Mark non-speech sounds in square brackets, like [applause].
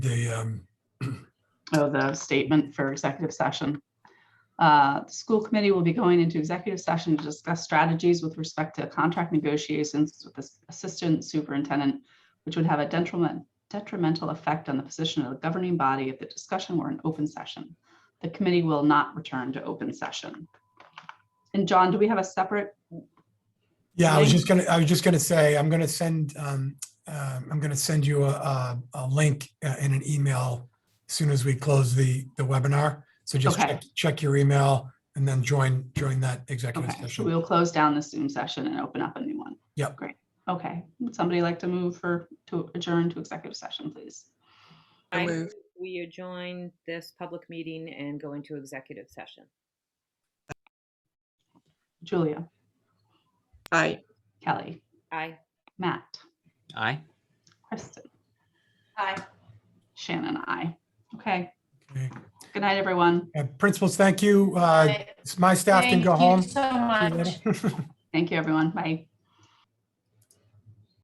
the, um, of the statement for executive session. Uh, The school committee will be going into executive session to discuss strategies with respect to contract negotiations with the assistant superintendent, which would have a detriment, detrimental effect on the position of the governing body if the discussion were an open session. The committee will not return to open session. And John, do we have a separate? yeah, I was Link. just gonna, I was just gonna say, I'm gonna send, um, um, I'm gonna send you a, a, a link uh, in an email as soon as we close the, the webinar. So just Okay. check, check your email and then join, join that executive Okay, so session. we'll close down the Zoom session and open up a new one. Yep. Great. Okay. Would somebody like to move for, to adjourn to executive session, please? So I moved. move we adjourn this public meeting and go into executive session. Julia, Aye. Kelly, Aye. Matt, Aye. Kristen. Hi. Shannon, I. Okay. Okay. Good night, everyone. Uh, Principals, thank you. Uh, My staff can Thank go you home. so See you much. [laughs] later. Thank you, everyone. Bye.